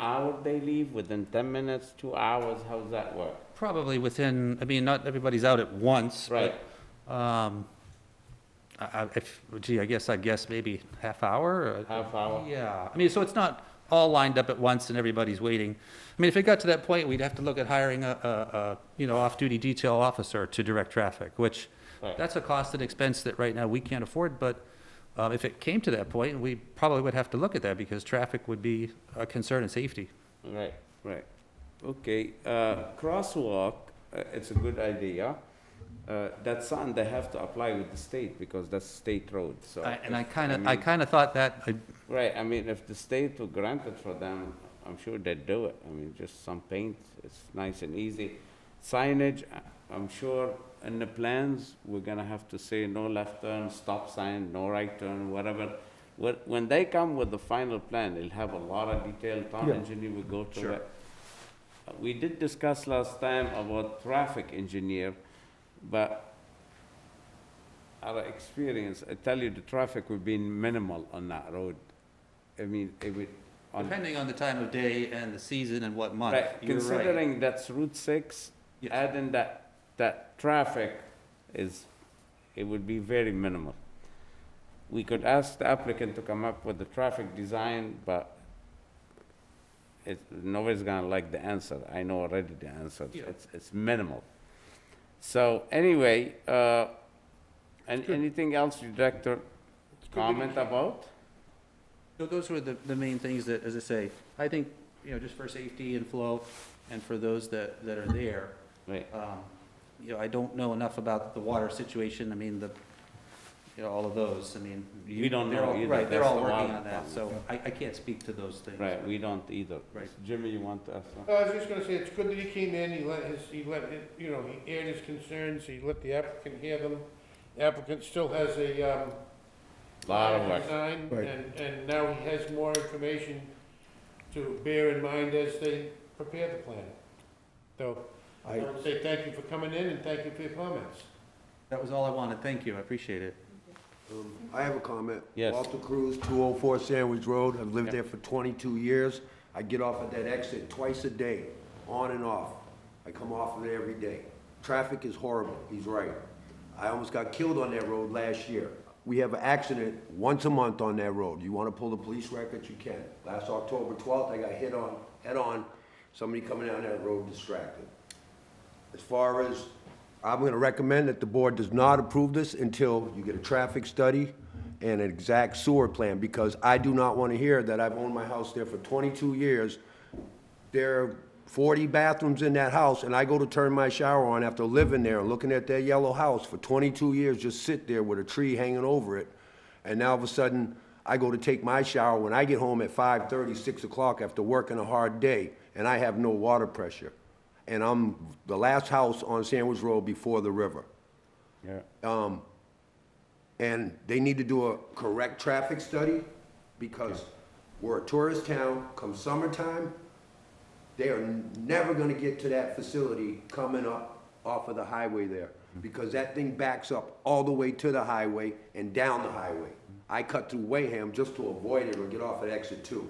hour they leave, within ten minutes, two hours, how's that work? Probably within, I mean, not everybody's out at once, Right, but, um, I, I, if, gee, I guess, I guess maybe half hour or? half hour? Yeah, I mean, so it's not all lined up at once and everybody's waiting. I mean, if it got to that point, we'd have to look at hiring a, a, a, you know, off-duty detail officer to direct traffic, which, Right. that's a cost and expense that right now we can't afford, but, um, if it came to that point, we probably would have to look at that because traffic would be a concern and safety. Right, right. Okay, uh, crosswalk, uh, it's a good idea. Uh, That's something they have to apply with the state because that's state road, so. I- And I if- kinda, I mean- kinda thought that, I, Right, I mean, if the state will grant it for them, I'm sure they'd do it. I mean, just some paint, it's nice and easy. Signage, I- I'm sure in the plans, we're gonna have to say no left turn, stop sign, no right turn, whatever. When, when they come with the final plan, they'll have a lot of detail, town Yeah. engineer will go through Sure. it. Uh, We did discuss last time about traffic engineer, but our experience, I tell you, the traffic would be minimal on that road. I mean, it would, on, depending on the time of day and the season and what month, right, you're right. considering that's Route six, Yes. adding that, that traffic is, it would be very minimal. We could ask the applicant to come up with the traffic design, but it, nobody's gonna like the answer, I know already the answer, Yeah. it's, it's minimal. So, anyway, uh, and anything else you'd like to comment about? So Those were the, the main things that, as I say, I think, you know, just for safety and flow, and for those that, that are there, Right, um, you know, I don't know enough about the water situation, I mean, the, you know, all of those, I mean. you- We don't they're know all- either. Right, they're That's all the working wild on that, part. so I, I can't speak to those things. right, we don't either. Right. Jimmy, you want to ask something? No, Oh, I was just gonna say, it's good that he came in, he let his, he let, it- you know, he aired his concerns, he let the applicant hear them. The Applicant still has a, um. Lot of work. Design, Right. and, and now he has more information to bear in mind as they prepare the plan. So, I I, would say thank you for coming in and thank you for your comments. That was all I wanted, thank you, I appreciate it. um, I have a comment. Yes. Walter Cruz, 204 Sandwich Road. I've lived there for 22 years. I get off at that exit twice a day, on and off. I come off of it every day. Traffic is horrible. He's right. I almost got killed on that road last year. We have an accident once a month on that road. You want to pull the police records, you can. Last October 12th, I got hit on, head-on, somebody coming down that road distracted. As far as, I'm gonna recommend that the board does not approve this until you get a traffic study and an exact sewer plan, because I do not wanna hear that I've owned my house there for twenty-two years. There are forty bathrooms in that house, and I go to turn my shower on after living there and looking at that yellow house for twenty-two years, just sit there with a tree hanging over it. And now all of a sudden, I go to take my shower when I get home at 5:30, 6 o'clock after working a hard day, and I have no water pressure. And I'm the last house on Sandwich Road before the river. Yeah. And they need to do a correct traffic study because we're a tourist town. Come summertime, they are never gonna get to that facility coming up off of the highway there. Because that thing backs up all the way to the highway and down the highway. I cut through Wayham just to avoid it or get off at exit two.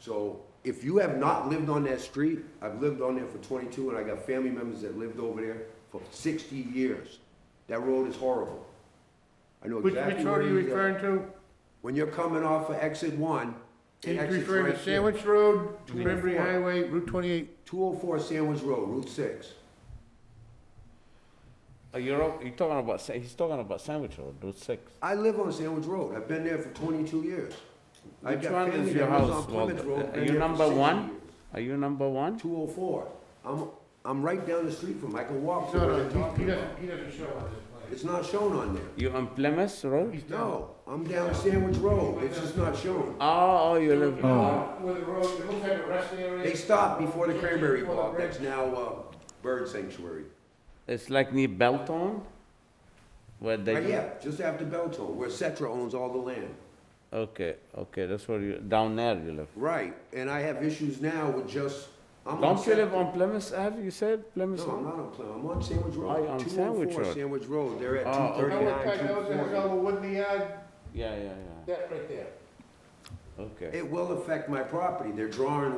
So if you have not lived on that street, I've lived on there for twenty-two and I got family members that lived over there for sixty years. That road is horrible. I know Which, exactly. uh, which road are you where at. referring to? When you're coming off of exit one. Are it you exits referring right to there. Sandwich Road, mean the Cranberry four? Highway, Route twenty-eight? 204 Sandwich Road, Route 6. Uh, You're, o- you're talking about, sa- he's talking about Sandwich Road, Route six. I live on Sandwich Road. I've been there for 22 years. I've Which got one family is your that lives on house, Plymouth Walter? Road, Uh, been Are there you for number 60 one? years. Are you number one? 204. I'm, I'm right down the street from, I can walk to No, where they're no, he- he talking about. doesn't, he doesn't show on this plan. It's not shown on there. You on Plymouth Road? He's down. No, I'm down Sandwich Road. It's just not shown. Oh, oh, you live, oh, Where the road, it looks like a resting area. They stopped before the Cranberry Bog. That's now, uh, Bird Sanctuary. it's like near Belton? Where they, Right, do- yeah, just after Belton, where Setra owns all the land. okay, okay, that's where you, down there you live. Right, and I have issues now with just, I'm on Don't you Setra. live on Plymouth Ave, you said, Plymouth No, I'm Road? not on Plymouth, I'm on Sandwich Oh, you're Road, on two oh Sandwich four Road. Sandwich Road, they're at Oh, two That was thirty-nine, that was- that was all two the wood in the yard, Yeah, yeah, that right there. yeah, okay. forty. It will affect my property, they're drawing